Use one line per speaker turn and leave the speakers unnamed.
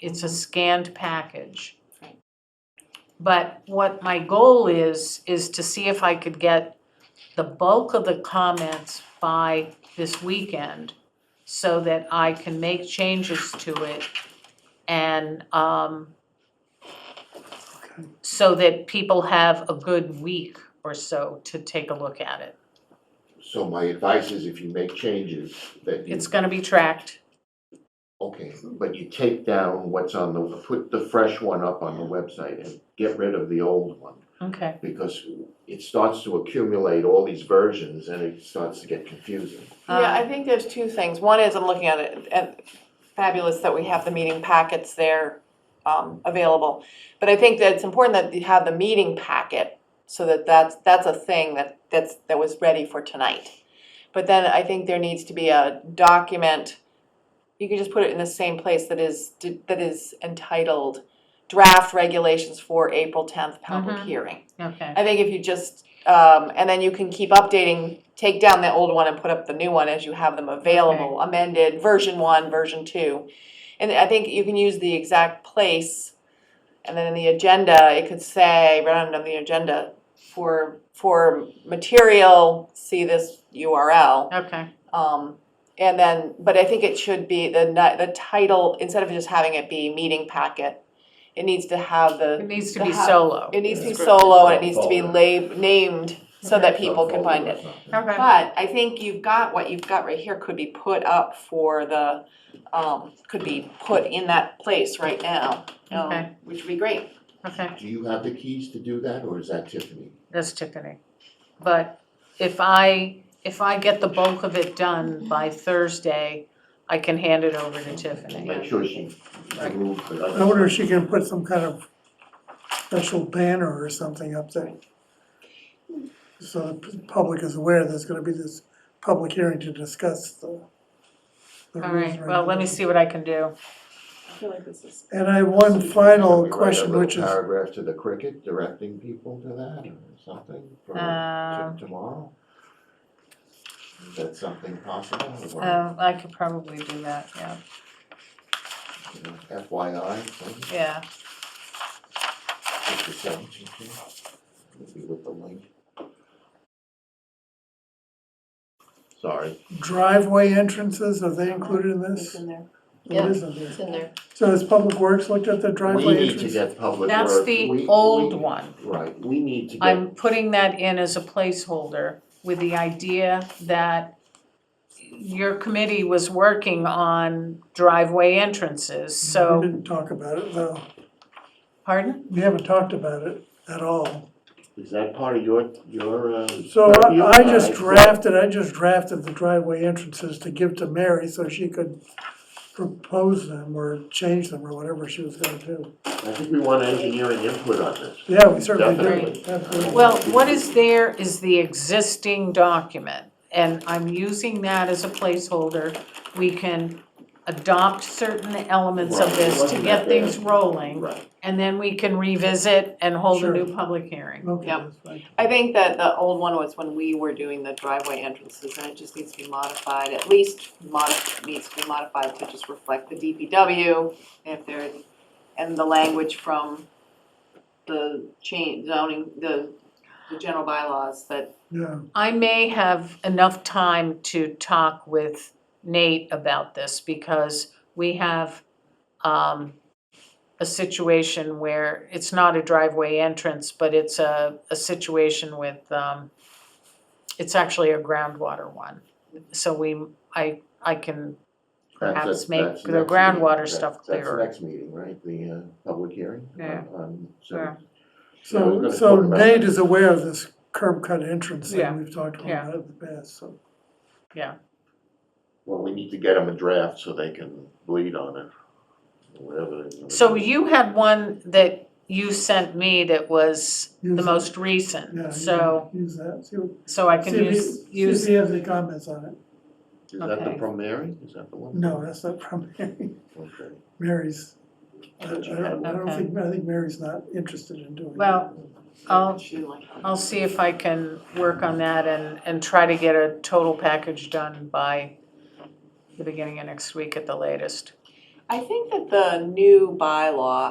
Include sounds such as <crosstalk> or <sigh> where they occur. it's
Mm-hmm.
a scanned package.
Right.
But what my goal is, is to see if I could get the bulk of the comments by this weekend so that I can make changes to it and, um, so that people have a good week or so to take a look at it.
So my advice is if you make changes, that you,
It's gonna be tracked,
okay, but you take down what's on the, put the fresh one up on the website and get rid of the old one.
okay.
Because it starts to accumulate all these versions and it starts to get confusing.
Yeah, I
Um,
think there's two things. One is I'm looking at it, and fabulous that we have the meeting packets there um, available. But I think that it's important that you have the meeting packet so that that's, that's a thing that, that's, that was ready for tonight. But then I think there needs to be a document, you could just put it in the same place that is, that is entitled draft regulations for April tenth public
Mhm.
hearing.
Okay,
I think if you just, um, and then you can keep updating, take down the old one and put up the new one as you have them available, amended, version one, version two. And I think you can use the exact place, and then in the agenda, it could say, right under the agenda, for, for material, see this URL.
okay,
Um, and then, but I think it should be the, ni- the title, instead of just having it be meeting packet, it needs to have the
it needs to
The
be
ho-
solo.
it needs to be
Descriptive.
solo and it needs to be
Folder.
lab, named so that people can find it.
Okay.
But I think you've got, what you've got right here could be put up for the, um, could be put in that place right now. um,
Okay.
Which would be great.
Okay,
Do you have the keys to do that or is that Tiffany?
that's Tiffany. But if I, if I get the bulk of it done by Thursday, I can hand it over to Tiffany.
Make sure she removed the
I wonder if she can put some kind of special banner or something up there. So the p- public is aware there's gonna be this public hearing to discuss the. the
All
rules
right,
and
well, let me see what I can do.
I feel like this is.
And I have one
Can we
final
write a
question,
little
which is,
Paragraph to the cricket directing people to that or something for to-
Um,
tomorrow? Is that something possible? Or,
uh, I could probably do that, yeah,
you know, FYI, something,
yeah.
just to send it to you. Maybe with the link. Sorry,
driveway entrances, are they included in
It's
this?
in there.
Yeah.
It is in there.
It's in there.
So has Public Works looked at the
we
driveway
need to
entrance?
get public work.
That's
we-
the
we-
old one.
Right, we need to get,
I'm putting that in as a placeholder with the idea that your committee was working on driveway entrances,
We
so,
didn't talk about it though.
pardon?
We haven't talked about it at all.
is that part of your, your, uh?
So
purview?
I I just
Alright, cool.
drafted, I just drafted the driveway entrances to give to Mary so she could propose them or change them or whatever she was gonna do.
I think we want engineering input on this.
Yeah, we certainly
Definitely.
do. Absolutely.
Well, what is there is the existing document, and I'm using that as a placeholder. We can adopt certain elements of this to get things rolling,
Right,
and then we can revisit and hold a new
Sure.
public hearing.
Okay,
Yep.
that's fine.
I think that the old one was when we were doing the driveway entrances and it just needs to be modified, at least mod, needs to be modified to just reflect the DPW. If there, and the language from the change zoning, the, the general bylaws that,
Yeah,
I may have enough time to talk with Nate about this because we have um a situation where it's not a driveway entrance, but it's a a situation with um it's actually a groundwater one. So we, I I can,
That's-
Perhaps
that's-
make
that's
the
next
groundwater
meeting. That-
stuff clearer.
That's next meeting, right, the uh, public hearing?
Yeah.
On- on- so-
Yeah.
Yeah, we're
so,
gonna
so
talk about
Nate
that.
is aware of this curb cut entrance
Yeah,
thing, we've talked
yeah.
about it in the past, so.
Well, we need to get them a draft so they can bleed on it, or whatever. they wanna
so
do.
you had one that you sent me that was the
Use-
most
yeah,
recent,
you
so
can Use that, see what.
so I can
see if he-
use
see
use
if he has any comments on it.
Is that the
okay.
from Mary, is that the one?
No, that's not from <laughs> Mary.
Okay.
Mary's, I I
But you
don't,
had
I
one.
don't
Okay.
think, I think Mary's not interested in doing it.
Well, I'll,
she like.
I'll see if I can work on that and, and try to get a total package done by the beginning of next week at the latest.
I think that the new bylaw